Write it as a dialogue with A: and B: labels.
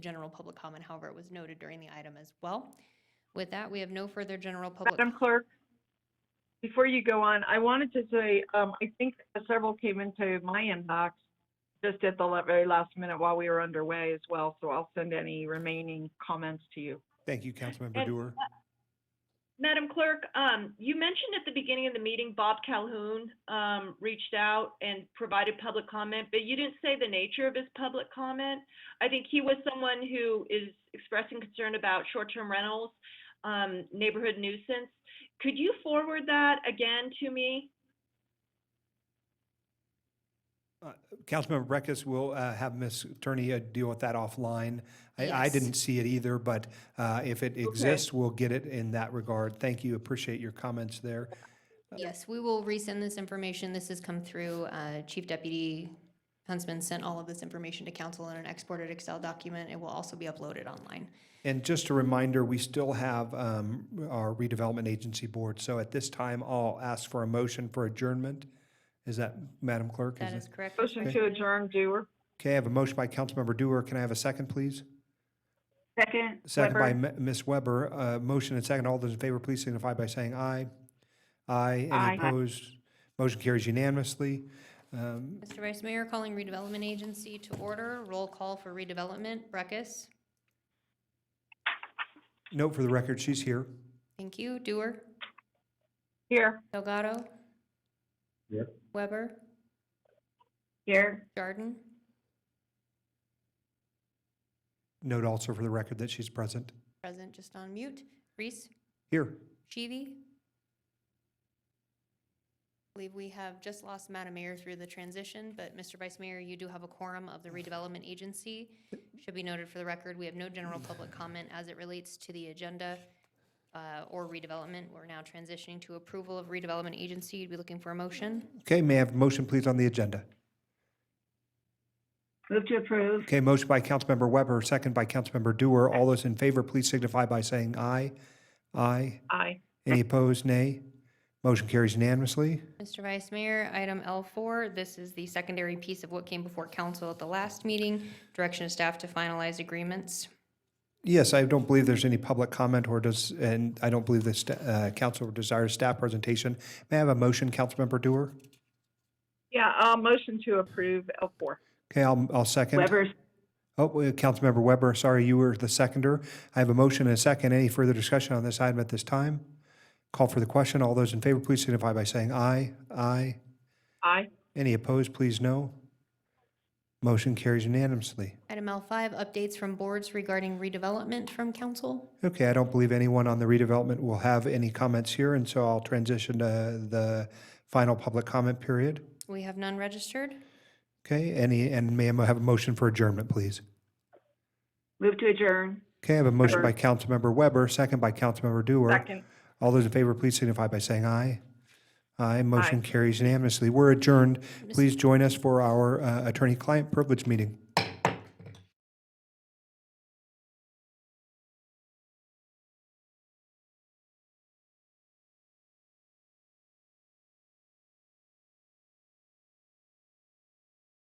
A: general public comment, however, it was noted during the item as well. With that, we have no further general public.
B: Madam Clerk, before you go on, I wanted to say, um, I think several came into my inbox just at the la- very last minute while we were underway as well, so I'll send any remaining comments to you.
C: Thank you, Councilmember
D: And-
C: Doer.
A: uh,
D: Madam Clerk, um, you mentioned at the beginning of the meeting, Bob Calhoun, um, reached out and provided public comment, but you didn't say the nature of his public comment. I think he was someone who is expressing concern about short-term rentals, um, neighborhood nuisance. Could you forward that again to me?
C: Uh, Councilmember Breckus, we'll uh, have Ms. Attorney uh, deal with that offline. I, I
A: Yes.
C: didn't see it either, but uh, if it exists, we'll get it in that regard. Thank you, appreciate your comments there.
A: Yes, we will resend this information. This has come through. uh, Chief Deputy Huntsman sent all of this information to council in an exported Excel document. It will also be uploaded online.
C: And just a reminder, we still have um, our redevelopment agency board. So at this time, I'll ask for a motion for adjournment. Is that, Madam Clerk?
A: That
C: it-
A: is correct. Mr.
B: Motion to
A: President.
B: adjourn, doer.
C: Okay, I have a motion by Councilmember Doer. Can I have a second, please?
B: Second.
C: Second by M- Ms. Weber. Uh, Motion and second. All those in favor, please signify by saying aye. Aye.
B: Aye.
C: Any opposed? Motion carries unanimously. Um,
A: Mr. Vice Mayor, calling redevelopment agency to order. Roll call for redevelopment. Breckus?
C: Note for the record, she's here.
A: Thank you. Doer?
B: Here.
A: Delgado?
C: Yep.
A: Weber?
B: Here.
A: Jarden?
C: Note also for the record that she's present.
A: Present, just on mute. Reese?
C: Here.
A: Shivi? I believe we have just lost Madam Mayor through the transition, but Mr. Vice Mayor, you do have a quorum of the redevelopment agency. Should be noted for the record, we have no general public comment as it relates to the agenda uh, or redevelopment. We're now transitioning to approval of redevelopment agency. Be looking for a motion.
C: Okay, may I have a motion, please, on the agenda?
B: Move to approve.
C: Okay, motion by Councilmember Weber, second by Councilmember Doer. All those in favor, please signify by saying aye. Aye.
B: Aye.
C: Any opposed? Nay. Motion carries unanimously.
A: Mr. Vice Mayor, item L4, this is the secondary piece of what came before council at the last meeting. Direction of staff to finalize agreements.
C: Yes, I don't believe there's any public comment or does, and I don't believe the sta- uh, council desires staff presentation. May I have a motion, Councilmember Doer?
B: Yeah, uh, motion to approve L four.
C: Okay, I'll, I'll second. Oh, wait, Councilmember Weber, sorry, you were the seconder. I have a motion and a second. Any further discussion on this item at this time? Call for the question. All those in favor, please signify by saying aye. Aye.
B: Aye.
C: Any opposed, please no. Motion carries unanimously.
A: Item L5, updates from boards regarding redevelopment from council.
C: Okay, I don't believe anyone on the redevelopment will have any comments here, and so I'll transition to the final public comment period.
A: We have none registered.
C: Okay, any, and may I have a motion for adjournment, please?
B: Move to adjourn.
C: Okay, I have a motion by Councilmember Weber, second by Councilmember Dewar.
B: Second.
C: All those in favor, please signify by saying aye. Aye, motion carries unanimously. We're adjourned. Please join us for our uh, attorney-client privilege meeting.